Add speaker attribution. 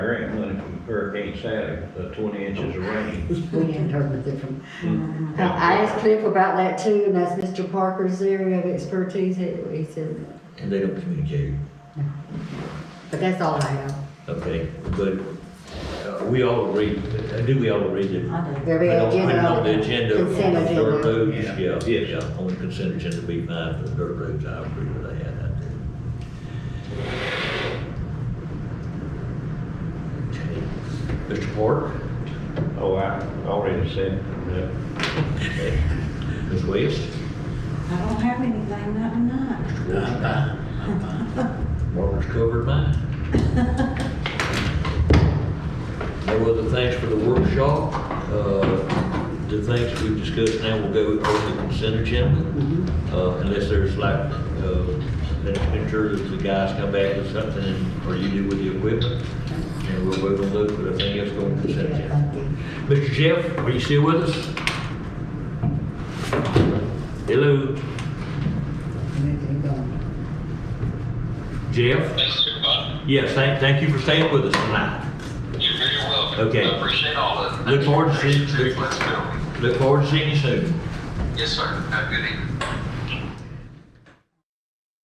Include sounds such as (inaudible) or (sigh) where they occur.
Speaker 1: Hurricane Sally, the twenty inches of rain.
Speaker 2: We we interpret different.
Speaker 3: Mm-hmm.
Speaker 1: Mm.
Speaker 2: I I asked Cliff about that too, and that's Mr. Parker's area of expertise, he he said,
Speaker 3: And they don't communicate.
Speaker 2: but that's all I have.
Speaker 3: Okay, but uh, we all agree, uh, do we all agree that?
Speaker 2: I do. There'll be
Speaker 3: I
Speaker 2: an
Speaker 3: don't-
Speaker 2: agenda.
Speaker 3: I don't- The
Speaker 2: item.
Speaker 3: agenda. on
Speaker 2: Consent
Speaker 3: Dirt
Speaker 2: agenda.
Speaker 3: roads,
Speaker 1: Yeah.
Speaker 3: yeah,
Speaker 1: Yes.
Speaker 3: yeah, on the consent agenda be fine for the dirt roads, I agree with that, I do. Okay. Mr. Park?
Speaker 1: Oh, I already said that.
Speaker 3: Okay. Ms. West?
Speaker 4: I don't have anything, not tonight.
Speaker 3: I'm fine, I'm
Speaker 4: (laughs)
Speaker 3: fine. Barbara's covered mine. No other thanks for the workshop. Uh, The things we've discussed now will go over the consent agenda.
Speaker 4: Mm-hmm.
Speaker 3: Uh, Unless there's like, uh, let's make sure that the guys come back with something and- or you do with the equipment. And we'll vote on those, but I think that's going to consent agenda.
Speaker 2: Thank you.
Speaker 3: Mr. Jeff, are you still with us? Hello,
Speaker 2: And then keep going.
Speaker 3: Jeff?
Speaker 5: Thanks, everybody.
Speaker 3: Yes, thank, thank you for staying with us tonight.
Speaker 5: You're very welcome.
Speaker 3: Okay.
Speaker 5: I appreciate all of it.
Speaker 3: Look forward to
Speaker 5: Thanks.
Speaker 3: seeing-
Speaker 5: Let's go.
Speaker 3: Look forward to seeing you soon.
Speaker 5: Yes, sir. Have a good evening.